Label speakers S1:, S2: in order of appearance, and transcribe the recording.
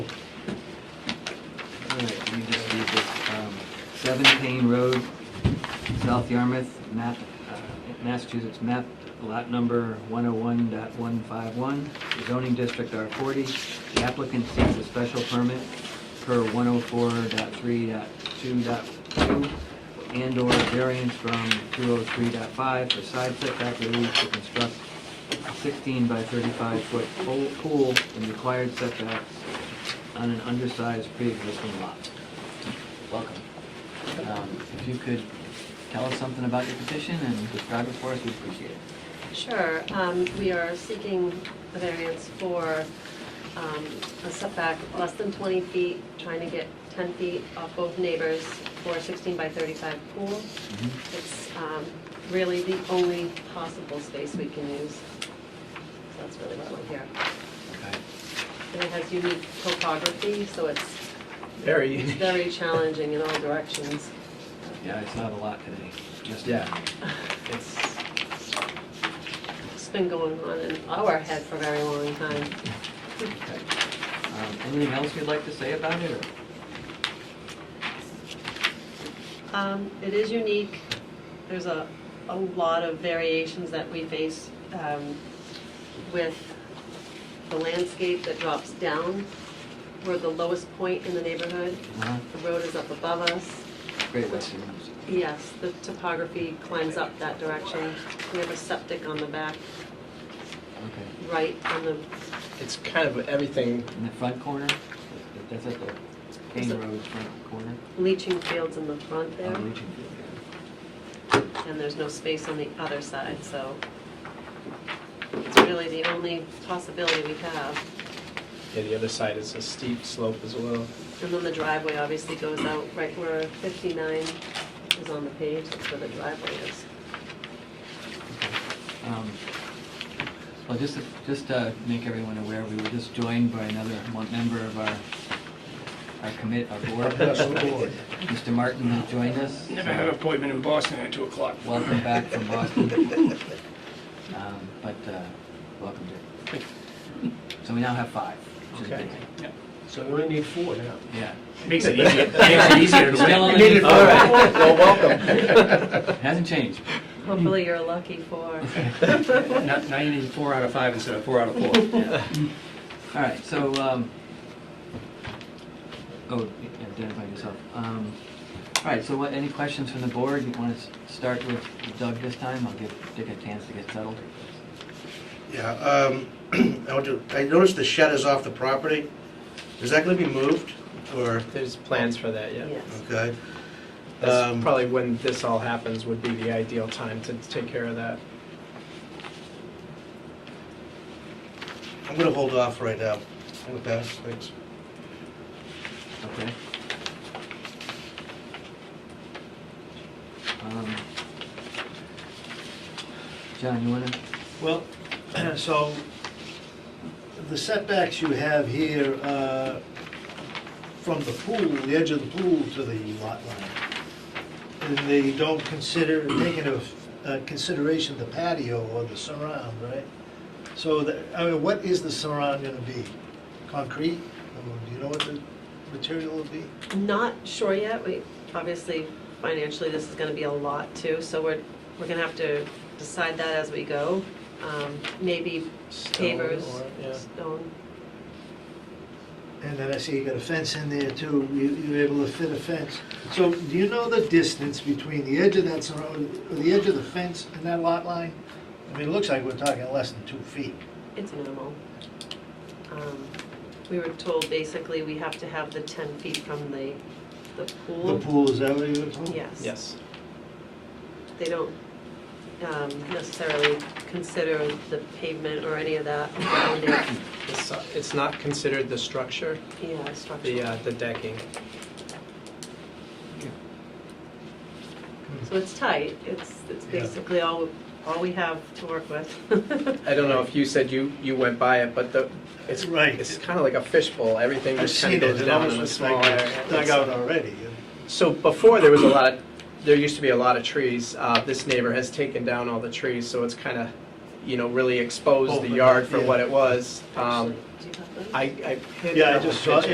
S1: um, seven Payne Road, South Yarmouth, map, uh, Massachusetts map, lot number one oh one dot one five one, zoning district R forty. The applicant seeks a special permit per one oh four dot three dot two dot two and/or variance from two oh three dot five for side setback relief to construct a sixteen by thirty-five foot pool- pool in required setbacks on an undersized pre-existing lot. Welcome. Um, If you could tell us something about your petition and describe it for us, we'd appreciate it.
S2: Sure, um, we are seeking a variance for um, a setback less than 20 feet, trying to get 10 feet off both neighbors for a 16 by 35 pool.
S1: Mm-hmm.
S2: It's um, really the only possible space we can use. So that's really what we're here.
S1: Okay.
S2: And it has unique topography, so it's
S3: Very.
S2: very challenging in all directions.
S1: Yeah, I saw it a lot today. Just-
S3: Yeah.
S1: It's,
S2: It's been going on in our head for a very long time.
S1: okay. Um, Anything else you'd like to say about it, or?
S2: Um, It is unique. There's a, a lot of variations that we face um, with the landscape that drops down. We're the lowest point in the neighborhood.
S1: Uh-huh.
S2: The road is up above us.
S1: Great Western Use.
S2: Yes, the topography climbs up that direction. We have a septic on the back,
S1: Okay.
S2: right on the,
S3: It's kind of everything.
S1: In the front corner? That's at the Kane Road front corner?
S2: leaching fields in the front
S1: Oh,
S2: there,
S1: Legion Field, yeah.
S2: and there's no space on the other side, so it's really the only possibility we have.
S3: Yeah, the other side is a steep slope as well.
S2: And then the driveway obviously goes out right where 59 is on the page, that's where the driveway is.
S1: Um, Well, just, to- just to make everyone aware, we were just joined by another mon- member of our, our commit, our board. Mr. Martin has joined us. Uh,
S4: Never had an appointment in Boston at 2 o'clock.
S1: Welcome back from Boston. Um, But, uh, welcome, Dick. So we now have five. which is
S3: Okay.
S1: good.
S5: So we only need four now.
S1: Yeah.
S4: Makes it easier, makes it easier to
S1: Still
S4: win.
S1: only need
S3: All
S1: five.
S3: right, well, welcome.
S1: Hasn't changed.
S2: Hopefully you're lucky for,
S4: Now now you need four out of five instead of four out of four.
S1: All right, so, um, oh, identify yourself. Um, All right, so what, any questions from the board? You want to start with Doug this time? I'll give Dick a chance to get settled.
S6: Yeah, um, I want to- I noticed the shed is off the property. Is that gonna be moved, or,
S3: There's plans for that, yeah.
S2: yes.
S6: okay?
S3: That's
S6: Um,
S3: probably when this all happens would be the ideal time to take care of that.
S6: I'm gonna hold off right now. I'm gonna pass, thanks.
S1: Okay. Um, John, you want to?
S5: Well, so the setbacks you have here uh, from the pool, the edge of the pool to the lot line, and they don't consider, take into uh, consideration the patio or the surround, right? So, the- I mean, what is the surround gonna be? Concrete? Or Do you know what the material will be?
S2: Not sure yet, we, obviously financially this is gonna be a lot too, so we're, we're gonna have to decide that as we go. Um, Maybe
S3: Stone
S2: pavers,
S3: or- yeah.
S2: stone,
S5: And then I see you got a fence in there too, you, you're able to fit a fence. So do you know the distance between the edge of that surround, or the edge of the fence and that lot line? I mean, it looks like we're talking less than two feet.
S2: it's minimal. Um, We were told basically we have to have the 10 feet from the, the
S5: The pool, is that what you were told?
S2: Yes.
S3: Yes.
S2: they don't um, necessarily consider the pavement or any of that around it,
S3: It's, uh, It's not considered the structure,
S2: yeah,
S3: the,
S2: structure.
S3: uh, the decking.
S2: So it's tight, it's, it's
S5: Yeah.
S2: basically all, all we have to work with.
S3: I don't know if you said you, you went by it, but the, it's,
S5: It's right.
S3: it's kind of like a fishbowl. Everything
S5: I've
S3: just kind of
S5: seen it,
S3: goes
S5: it
S3: down in
S5: almost
S3: a
S5: looks
S3: small
S5: like
S3: area.
S5: it's dug out already.
S3: So before, there was a lot, of- there used to be a lot of trees. Uh, This neighbor has taken down all the trees, so it's kind of, you know, really exposed the
S5: Open,
S3: yard for
S5: yeah.
S3: what it was. Um,
S2: Do you have those?
S3: I, I. hit
S5: Yeah, I
S3: a couple
S5: just saw-
S3: pictures.